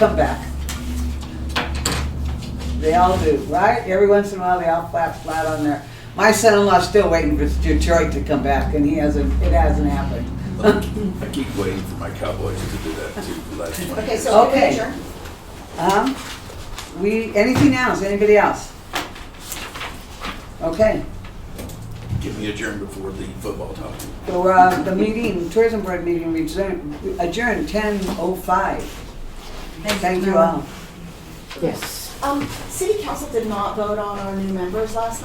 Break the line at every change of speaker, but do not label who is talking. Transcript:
Come back. They all do, right? Every once in a while, they all flap flat on there. My son-in-law's still waiting for Detroit to come back, and he hasn't, it hasn't happened.
I keep waiting for my Cowboys to do that too, for the last one.
Okay, so we can
Okay.
adjourn.
Um, we, anything else, anybody else? Okay,
Give me a adjourn before the football talk.
so, uh, the meeting, tourism board meeting resumed- adjourned ten oh five. Thank you all.
Yes.
Um, city council did not vote on our new members last night.